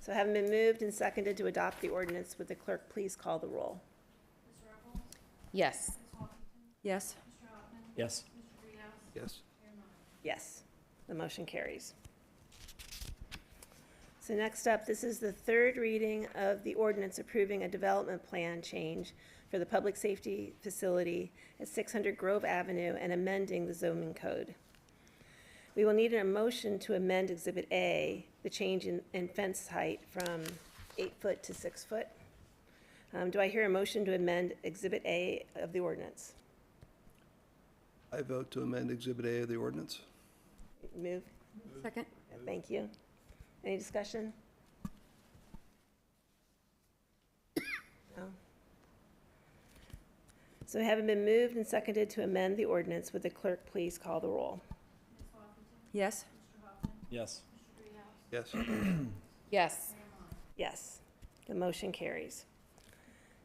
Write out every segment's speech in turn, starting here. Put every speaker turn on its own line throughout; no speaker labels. So having been moved and seconded to adopt the ordinance, would the clerk please call the roll?
Yes.
Yes.
Yes.
Yes.
Yes, the motion carries. So next up, this is the third reading of the ordinance approving a development plan change for the public safety facility at six hundred Grove Avenue and amending the zoning code. We will need a motion to amend Exhibit A, the change in, in fence height from eight foot to six foot. Um, do I hear a motion to amend Exhibit A of the ordinance?
I vote to amend Exhibit A of the ordinance.
Move?
Second?
Thank you. Any discussion? No. Oh. So having been moved and seconded to amend the ordinance, would the clerk please call the roll?
Yes.
Yes.
Yes.
Yes.
Yes, the motion carries.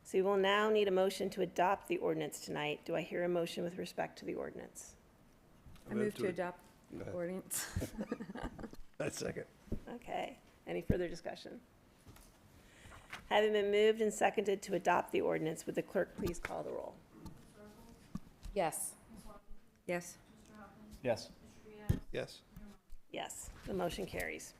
So we will now need a motion to adopt the ordinance tonight. Do I hear a motion with respect to the ordinance?
I move to
ad-
adopt
Go ahead.
ordinance.
I second.
Okay, any further discussion? Having been moved and seconded to adopt the ordinance, would the clerk please call the roll?
Yes.
Yes.
Yes.
Yes.
Yes, the motion carries.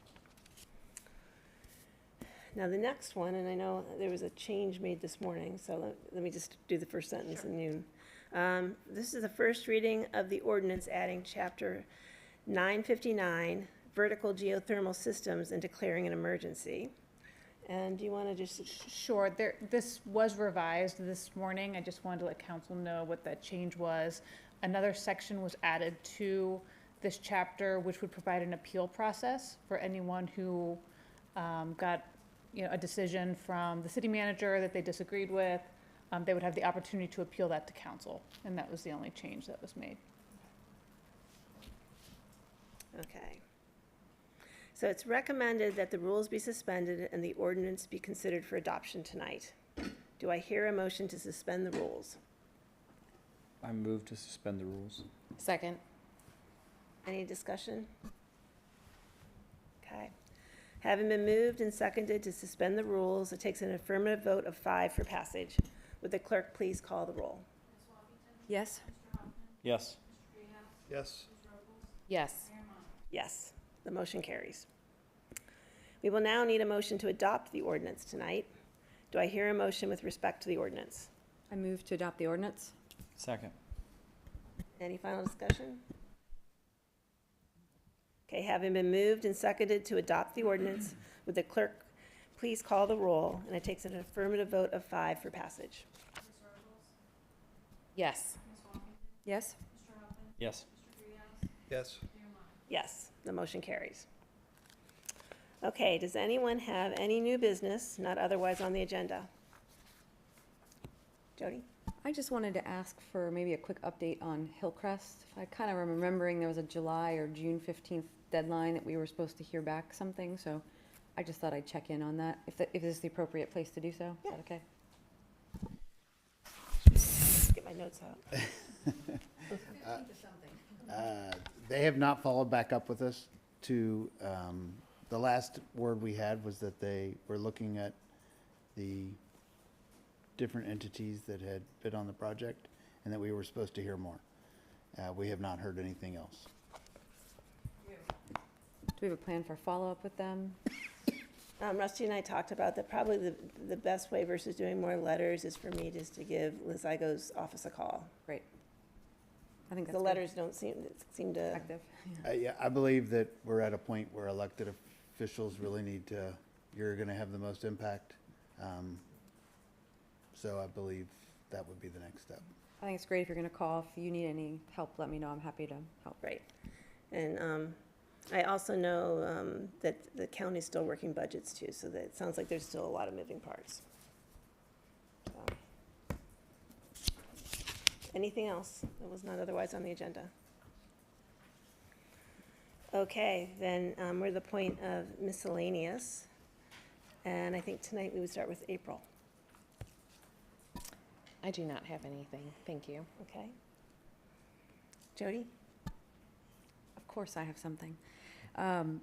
Now, the next one, and I know there was a change made this morning, so let, let me just do the first sentence and you. Um, this is the first reading of the ordinance adding chapter nine fifty-nine, vertical geothermal systems and declaring an emergency. And do you wanna just,
Sure, there, this was revised this morning, I just wanted to let council know what that change was. Another section was added to this chapter, which would provide an appeal process for anyone who, um, got, you know, a decision from the city manager that they disagreed with. Um, they would have the opportunity to appeal that to council, and that was the only change that was made.
okay. So it's recommended that the rules be suspended and the ordinance be considered for adoption tonight. Do I hear a motion to suspend the rules?
I move to suspend the rules.
Second.
Any discussion? Okay. Having been moved and seconded to suspend the rules, it takes an affirmative vote of five for passage. Would the clerk please call the roll?
Yes.
Yes.
Yes.
Yes.
Yes, the motion carries. We will now need a motion to adopt the ordinance tonight. Do I hear a motion with respect to the ordinance?
I move to adopt the ordinance.
Second.
Any final discussion? Okay, having been moved and seconded to adopt the ordinance, would the clerk please call the roll? And it takes an affirmative vote of five for passage.
Yes.
Yes.
Yes.
Yes.
Yes, the motion carries. Okay, does anyone have any new business not otherwise on the agenda? Jody?
I just wanted to ask for maybe a quick update on Hillcrest. I kind of remembering there was a July or June fifteenth deadline that we were supposed to hear back something, so I just thought I'd check in on that, if, that- if this is the appropriate place to do so. Is that okay?
Get my notes out.
Uh, They have not followed back up with us to, um, the last word we had was that they were looking at the different entities that had bid on the project and that we were supposed to hear more. Uh, We have not heard anything else.
Do we have a plan for follow-up with them?
Um, Rusty and I talked about that probably the, the best way versus doing more letters is for me just to give Liz Igo's office a call.
Great. I think that's
The
good.
letters don't seem, seem to,
Effective.
I, yeah, I believe that we're at a point where elected officials really need to, you're gonna have the most impact. Um, So I believe that would be the next step.
I think it's great if you're gonna call, if you need any help, let me know, I'm happy to help.
right. And, um, I also know, um, that the county's still working budgets too, so that it sounds like there's still a lot of moving parts. So. Anything else that was not otherwise on the agenda? Okay, then, um, we're at the point of miscellaneous. And I think tonight we would start with April,
I do not have anything. Thank you.
okay? Jody?
Of course I have something. Um,